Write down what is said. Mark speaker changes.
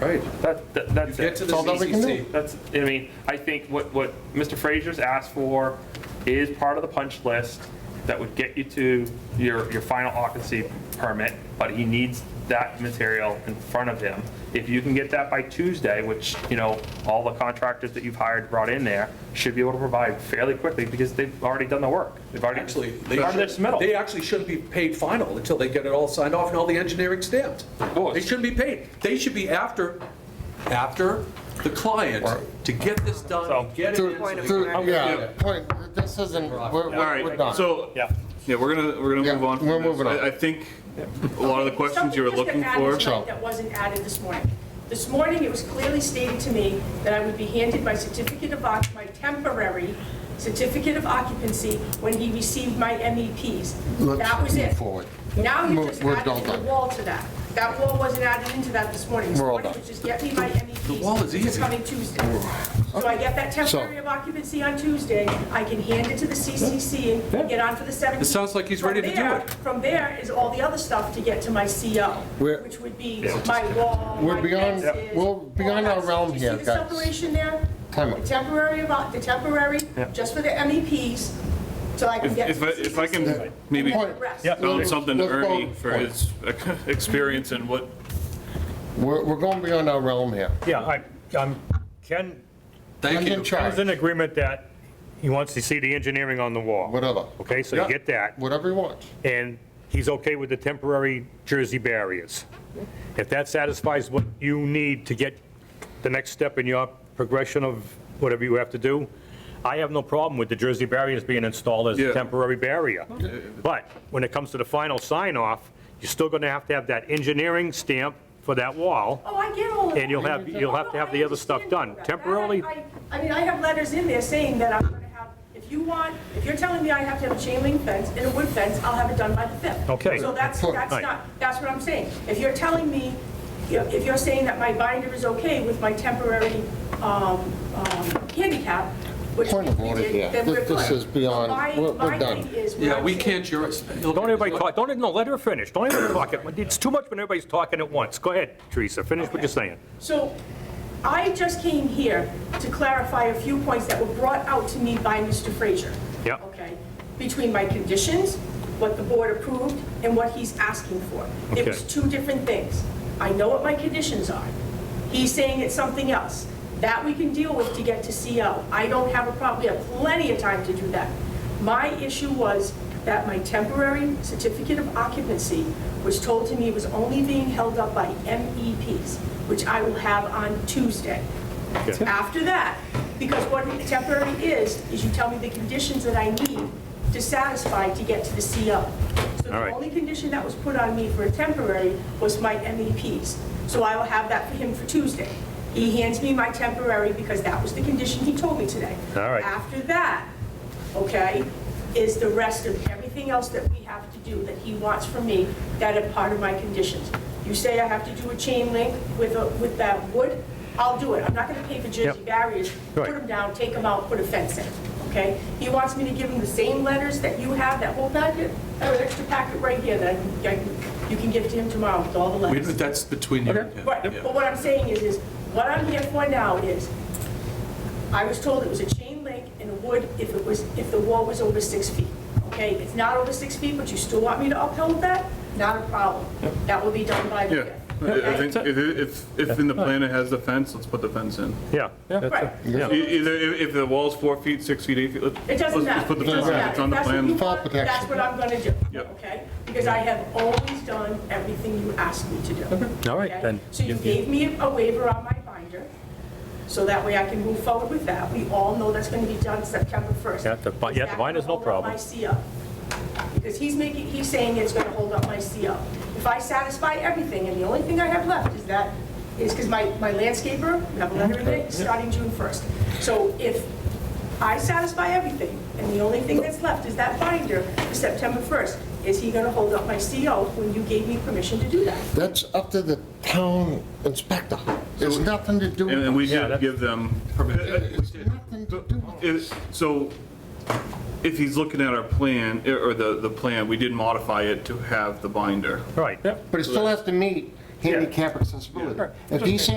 Speaker 1: Right.
Speaker 2: That, that- that's it.
Speaker 1: Get to
Speaker 2: That's
Speaker 1: the
Speaker 2: all that we can do.
Speaker 1: CCC.
Speaker 2: That's, I mean, I think what, what Mr. Frazier's asked for is part of the punch list that would get you to your, your final occupancy permit, but he needs that material in front of him. If you can get that by Tuesday, which, you know, all the contractors that you've hired brought in there should be able to provide fairly quickly because they've already done the work. They've already,
Speaker 1: Actually, they
Speaker 2: part of their
Speaker 1: should,
Speaker 2: submittal.
Speaker 1: they actually shouldn't be paid final until they get it all signed off and all the engineering stamped.
Speaker 2: course.
Speaker 1: They shouldn't be paid. They should be after, after the client to get this done,
Speaker 2: So-
Speaker 1: and get it in. so they
Speaker 3: Through-
Speaker 1: can-
Speaker 3: Yeah, point, this isn't, we're, we're we're done.
Speaker 4: So,
Speaker 2: Yeah.
Speaker 4: yeah, we're gonna, we're gonna
Speaker 3: Yeah,
Speaker 4: move on. from
Speaker 3: we're
Speaker 4: this.
Speaker 3: moving on.
Speaker 4: I I think a lot of the questions you were
Speaker 5: Something
Speaker 4: looking
Speaker 5: just got
Speaker 4: for.
Speaker 5: added tonight That wasn't added this morning. This morning, it was clearly stated to me that I would be handed my certificate of, oc- my temporary certificate of occupancy when he received my MEPs.
Speaker 3: Let's
Speaker 5: That was
Speaker 3: move
Speaker 5: it.
Speaker 3: forward.
Speaker 5: Now you
Speaker 3: Move-
Speaker 5: just
Speaker 3: we're all
Speaker 5: added the
Speaker 3: done.
Speaker 5: wall to that. That wall wasn't added into that this morning. This
Speaker 3: We're all
Speaker 5: morning
Speaker 3: done.
Speaker 5: was just get me my MEPs.
Speaker 1: The wall is
Speaker 5: It's
Speaker 1: easy.
Speaker 5: coming Tuesday. So I get that temporary of occupancy on Tuesday, I can hand it to the CCC and get on for the 17th.
Speaker 1: It sounds like he's ready to do
Speaker 5: From there,
Speaker 1: it.
Speaker 5: From there is all the other stuff to get to my CO,
Speaker 3: We're-
Speaker 5: which would be my wall,
Speaker 3: We're
Speaker 5: my
Speaker 3: beyond-
Speaker 5: fences,
Speaker 3: we're
Speaker 5: all
Speaker 3: beyond
Speaker 5: that
Speaker 3: our
Speaker 5: stuff.
Speaker 3: realm
Speaker 5: Do
Speaker 3: here,
Speaker 5: You see
Speaker 3: guys.
Speaker 5: the separation there?
Speaker 3: Time out.
Speaker 5: The temporary about, the temporary, just for the MEPs, so I can
Speaker 4: If,
Speaker 5: get.
Speaker 4: if I, if I can maybe
Speaker 3: Point-
Speaker 5: Rest.
Speaker 4: tell something to
Speaker 3: Let's go.
Speaker 4: Ernie for his experience and what
Speaker 3: We're, we're going beyond our realm here.
Speaker 6: Yeah, I, I'm, Ken,
Speaker 1: Thank
Speaker 3: Ken's in
Speaker 1: you.
Speaker 6: Ken's
Speaker 3: charge,
Speaker 6: in agreement that he wants to see the engineering on the wall.
Speaker 3: Whatever.
Speaker 6: Okay, so you get that,
Speaker 3: whatever he wants.
Speaker 6: and he's okay with the temporary Jersey barriers. If that satisfies what you need to get the next step in your progression of whatever you have to do, I have no problem with the Jersey barriers being installed as
Speaker 4: Yeah.
Speaker 6: a temporary barrier. But when it comes to the final sign-off, you're still gonna have to have that engineering stamp for that wall.
Speaker 5: Oh, I get all of that.
Speaker 6: And you'll have- you'll have to have the other stuff done.
Speaker 5: No, I understand all that.
Speaker 6: Temporarily-
Speaker 5: I I mean, I have letters in there saying that I'm gonna have, if you want, if you're telling me I have to have a chain link fence and a wood fence, I'll have it done by the 5th.
Speaker 6: Okay.
Speaker 5: So that's,
Speaker 3: Sure.
Speaker 5: that's
Speaker 6: Right.
Speaker 5: not, that's what I'm saying. If you're telling me, you know, if you're saying that my binder is okay with my temporary um, um, handicap, which we
Speaker 3: Point of order
Speaker 5: did,
Speaker 3: here.
Speaker 5: then we're
Speaker 3: This- this
Speaker 5: good.
Speaker 3: is beyond-
Speaker 5: My-
Speaker 3: we're- we're
Speaker 5: My
Speaker 3: done.
Speaker 5: thing is. what
Speaker 1: Yeah,
Speaker 5: I'm
Speaker 1: we
Speaker 5: saying-
Speaker 1: can't juris.
Speaker 6: Don't everybody talk, don't, no, let her finish. Don't everybody talk. It's too much when everybody's talking at once. Go ahead, Teresa, finish what you're saying.
Speaker 5: So I just came here to clarify a few points that were brought out to me by Mr. Frazier.
Speaker 6: Yep.
Speaker 5: Okay? Between my conditions, what the board approved, and what he's asking for. It was
Speaker 6: Okay.
Speaker 5: two different things. I know what my conditions are. He's saying it's something else. That we can deal with to get to CO. I don't have a problem, we have plenty of time to do that. My issue was that my temporary certificate of occupancy was told to me was only being held up by MEPs, which I will have on Tuesday.
Speaker 6: Okay.
Speaker 5: After that, because what temporary is, is you tell me the conditions that I need to satisfy to get to the CO. So
Speaker 6: All
Speaker 5: the
Speaker 6: right.
Speaker 5: only condition that was put on me for a temporary was my MEPs. So I will have that for him for Tuesday. He hands me my temporary because that was the condition he told me today.
Speaker 6: All right.
Speaker 5: After that, okay, is the rest of everything else that we have to do that he wants from me that are part of my conditions. You say I have to do a chain link with, a- with that wood, I'll do it. I'm not going to pay for Jersey
Speaker 6: Yep.
Speaker 5: barriers, put
Speaker 6: Right.
Speaker 5: them down, take them out, put a fence in, okay? He wants me to give him the same letters that you have, that whole packet, I have an extra packet right here that I can- I can, you can give to him tomorrow with all the
Speaker 1: Wait,
Speaker 5: letters.
Speaker 1: but That's between you and him.
Speaker 5: Right,
Speaker 1: Yeah.
Speaker 5: but what I'm saying is, is what I'm here for now is, I was told it was a chain link and a wood if it was, if the wall was over six feet, okay? It's not over six feet, but you still want me to uphold that? Not a problem. That will be done by the
Speaker 4: Yeah,
Speaker 5: fifth.
Speaker 4: I I
Speaker 5: okay?
Speaker 4: think if, if, if in the plan it has the fence, let's put the fence in.
Speaker 6: Yeah.
Speaker 5: Right.
Speaker 4: E- Either, if if the wall's four feet, six feet, eight feet, let's,
Speaker 5: It
Speaker 4: let's
Speaker 5: doesn't
Speaker 4: let's
Speaker 5: matter.
Speaker 4: put the
Speaker 5: It doesn't
Speaker 4: fence in, it's
Speaker 5: matter.
Speaker 4: on the
Speaker 5: That's what you
Speaker 4: plan.
Speaker 3: File
Speaker 5: want,
Speaker 3: protection.
Speaker 5: That's what I'm gonna do,
Speaker 4: Yep.
Speaker 5: okay? Because I have always done everything you asked me to do.
Speaker 6: All right,
Speaker 5: okay?
Speaker 6: then.
Speaker 5: So you
Speaker 6: You-
Speaker 5: gave me a waiver on my binder, so that way I can move forward with that. We all know that's gonna be done September 1st.
Speaker 6: Yeah, the bi-
Speaker 5: Is
Speaker 6: yeah, the
Speaker 5: that
Speaker 6: binder's no
Speaker 5: gonna hold up
Speaker 6: problem.
Speaker 5: My CO. Because he's making, he's saying it's gonna hold up my CO. If I satisfy everything, and the only thing I have left is that, is because my, my landscaper, we have a letter in there, is starting June 1st. So if I satisfy everything, and the only thing that's left is that binder for September 1st, is he gonna hold up my CO when you gave me permission to do that?
Speaker 3: That's up to the town inspector. It's nothing to do
Speaker 4: And
Speaker 3: with
Speaker 4: and we
Speaker 3: us.
Speaker 4: should give them,
Speaker 3: It's nothing to do with us.
Speaker 4: If- So if he's looking at our plan, eh, or the, the plan, we did modify it to have the binder.
Speaker 6: Right.
Speaker 3: But it still has to meet handicap accessibility. If he says